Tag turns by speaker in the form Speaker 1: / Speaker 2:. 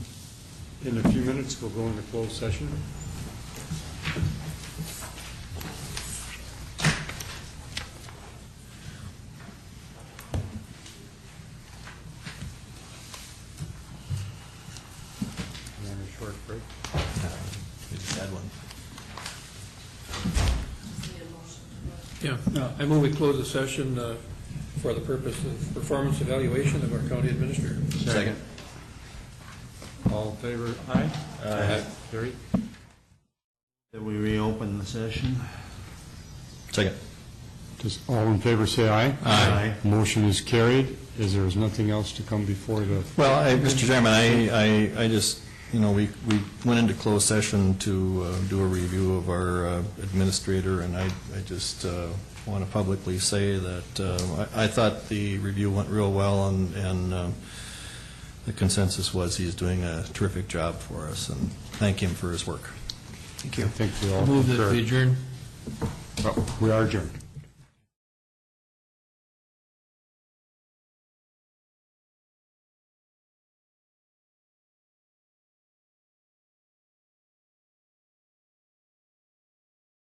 Speaker 1: In a few minutes, we'll go into closed session. You want a short break?
Speaker 2: We just had one.
Speaker 3: Yeah, I move we close the session uh, for the purpose of performance evaluation of our county administrator.
Speaker 2: Second.
Speaker 1: All in favor? Aye. Aye. Carried.
Speaker 4: That we reopen the session?
Speaker 2: Second.
Speaker 1: Does all in favor say aye?
Speaker 4: Aye.
Speaker 1: Motion is carried, as there is nothing else to come before the,
Speaker 2: Well, I- Mr. Chairman, I, I, I just, you know, we, we went into closed session to uh, do a review of our uh, administrator, and I, I just want to publicly say that uh, I, I thought the review went real well, and, and um, the consensus was he's doing a terrific job for us, and thank him for his work.
Speaker 1: I think we all
Speaker 3: Move that
Speaker 1: concur.
Speaker 3: we adjourn.
Speaker 1: Oh, We are adjourned.